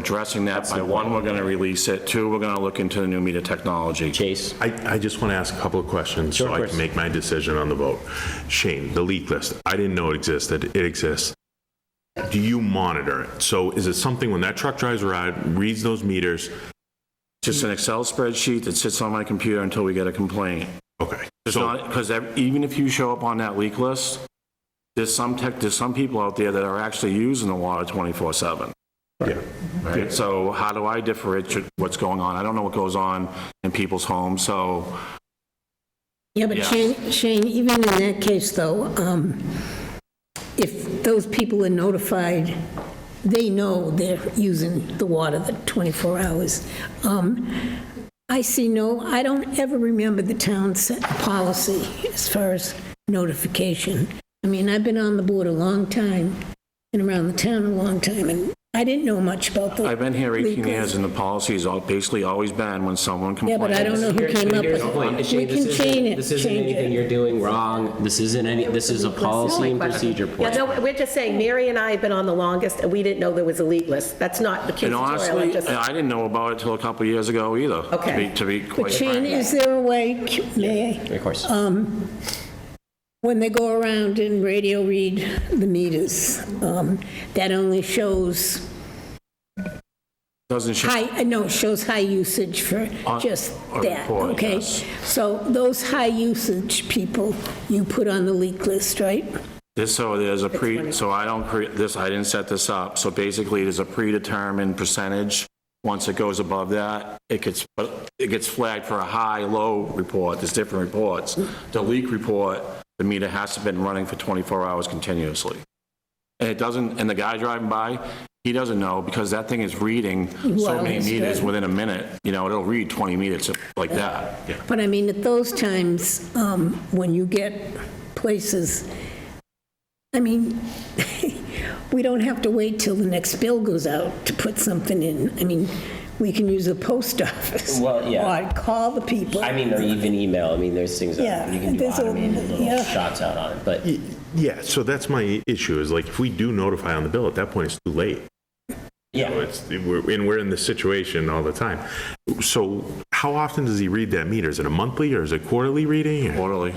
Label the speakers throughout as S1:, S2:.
S1: addressing that by, one, we're going to release it, two, we're going to look into the new media technology.
S2: Chase?
S3: I, I just want to ask a couple of questions so I
S2: Chris.
S3: can make my decision on the vote. Shane, the leak list, I didn't know it existed, it exists. Do you monitor it? So is it something when that truck drives around, reads those meters?
S1: Just an Excel spreadsheet that sits on my computer until we get a complaint.
S3: Okay.
S1: It's
S3: So,
S1: not, because even if you show up on that leak list, there's some tech, there's some people out there that are actually using the water 24/7.
S3: yeah.
S1: Right. So how do I differentiate what's going on? I don't know what goes on in people's homes, so
S4: Yeah, but
S1: Yeah.
S4: Shane, Shane, even in that case, though, um, if those people are notified, they know they're using the water the 24 hours. Um, I see no, I don't ever remember the town set policy as far as notification. I mean, I've been on the board a long time, and around the town a long time, and I didn't know much about the...
S1: I've been here 18
S4: legal-
S1: years and the policy has all- basically always been when someone
S4: Yeah,
S1: complains.
S4: but I don't know who
S2: Here-
S4: came up
S2: here's
S4: with
S2: the point.
S4: it. We
S2: Shane,
S4: can
S2: this isn't-
S4: change it,
S2: This isn't
S4: change
S2: anything
S4: it.
S2: you're doing wrong. This isn't any, this is a policy and procedure
S5: Yeah,
S2: point.
S5: no, we're just saying, Mary and I have been on the longest, and we didn't know there was a lead list. That's not
S1: And
S5: accusatorial, I
S1: honestly, uh,
S5: just,
S1: I didn't know about it till a couple of years ago either. to
S5: Okay.
S1: be- To be quite
S4: But Shane,
S1: frank.
S4: is there a way, c- may I,
S2: Of course.
S4: Um, when they go around and radio read the meters, um, that only shows
S1: Doesn't show
S4: high, I know it shows high usage for
S1: On-
S4: just
S1: on
S4: that,
S1: record,
S4: okay?
S1: yes.
S4: So those high usage people, you put on the leak list, right?
S1: This, so there's a pre, so I don't, cre- this, I didn't set this up. So basically, there's a predetermined percentage. Once it goes above that, it gets, but it gets flagged for a high, low report. There's different reports. The leak report, the meter has to been running for 24 hours continuously. And it doesn't, and the guy driving by, he doesn't know because that thing is reading so
S4: Well,
S1: many
S4: it's
S1: meters
S4: good.
S1: within a minute. You know, it'll read 20 meters like that.
S4: But I mean, at those times, um, when you get places, I mean, we don't have to wait till the next bill goes out to put something in. I mean, we can use the post office.
S2: Well, yeah.
S4: Or call the people.
S2: I mean, or even email. I mean, there's things that
S4: Yeah,
S2: you can do
S4: there's a-
S2: automated little
S4: yeah.
S2: shots out on it, but
S3: Yeah, so that's my issue, is like, if we do notify on the bill, at that point, it's too late. So
S2: yeah.
S3: It's, we're- and we're in this situation all the time. So how often does he read that meter? Is it a monthly or is it quarterly reading? or
S1: Quarterly,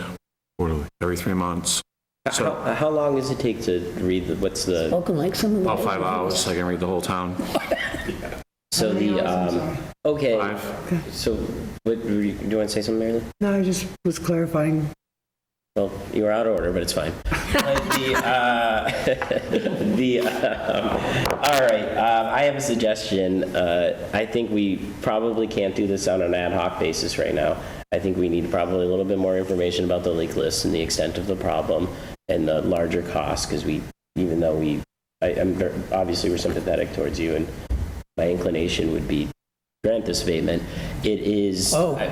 S3: Quarterly.
S1: every three months,
S2: How, how long does it take to read, the- what's the,
S4: Spoken like someone.
S1: about five hours. I can read the whole town.
S2: so the, um, okay,
S1: Five.
S2: so, what, do you want to say something, Mary Lou?
S6: No, I just was clarifying.
S2: Well, you were out of order, but it's fine. But the, uh, the, um, all right, um, I have a suggestion. Uh, I think we probably can't do this on an ad hoc basis right now. I think we need probably a little bit more information about the leak list and the extent of the problem and the larger cost, because we, even though we, I, I'm, ver- obviously we're sympathetic towards you, and my inclination would be grant this abatement. It is. I-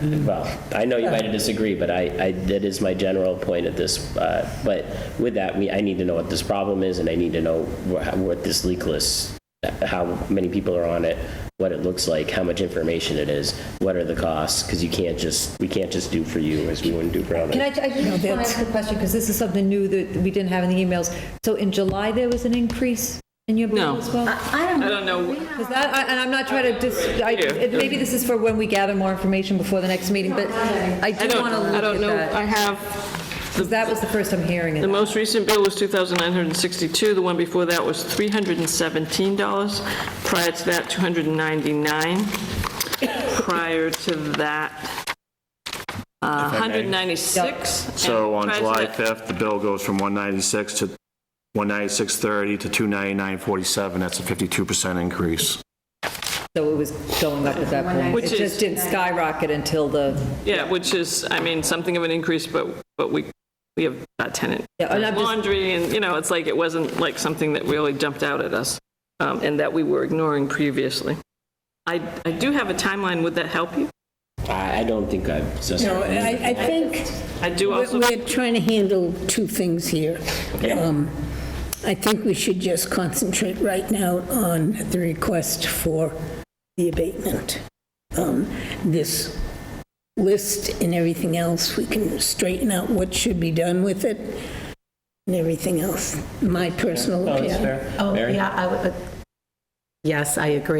S2: Well, I know you might disagree, but I, I, that is my general point at this. uh, But with that, we, I need to know what this problem is, and I need to know wha- what this leak list, how many people are on it, what it looks like, how much information it is, what are the costs, because you can't just, we can't just do for you as we wouldn't do for
S7: Can I,
S2: others.
S7: I just want to ask a question, because this is something new that we didn't have in the emails. So in July, there was an increase in your bill as well?
S8: I don't know.
S7: Is that, I- and I'm not trying to dis, I, it- maybe this is for when we gather more information before the next meeting, but I
S8: I
S7: do
S8: don't,
S7: want to
S8: I
S7: look
S8: don't
S7: at
S8: know.
S7: that.
S8: I have,
S7: 'Cause that was the first I'm hearing it.
S8: the most recent bill was 2,962. The one before that was $317. Prior to that, 299. Prior to that, uh, 196. and
S1: So on
S8: prior to
S1: July
S8: that-
S1: 5th, the bill goes from 196 to 196.30 to 299.47. That's a 52% increase.
S7: So it was going up at that point.
S8: Which
S7: It
S8: is-
S7: just didn't skyrocket until the,
S8: Yeah, which is, I mean, something of an increase, but, but we, we have that tenant.
S7: Yeah, and I'm just-
S8: Laundry and, you know, it's like, it wasn't like something that really jumped out at us um, and that we were ignoring previously. I, I do have a timeline. Would that help you?
S2: I, I don't think I've. so-
S4: No, I, I think
S8: I do
S4: we're
S8: also.
S4: we're trying to handle two things here. Um, I think we should just concentrate right now on the request for the abatement. Um, This list and everything else, we can straighten out what should be done with it and everything else, my personal
S2: Oh, that's
S4: opinion.
S2: fair.
S5: oh,
S2: Mary?
S5: yeah, I would, Yes, I agree.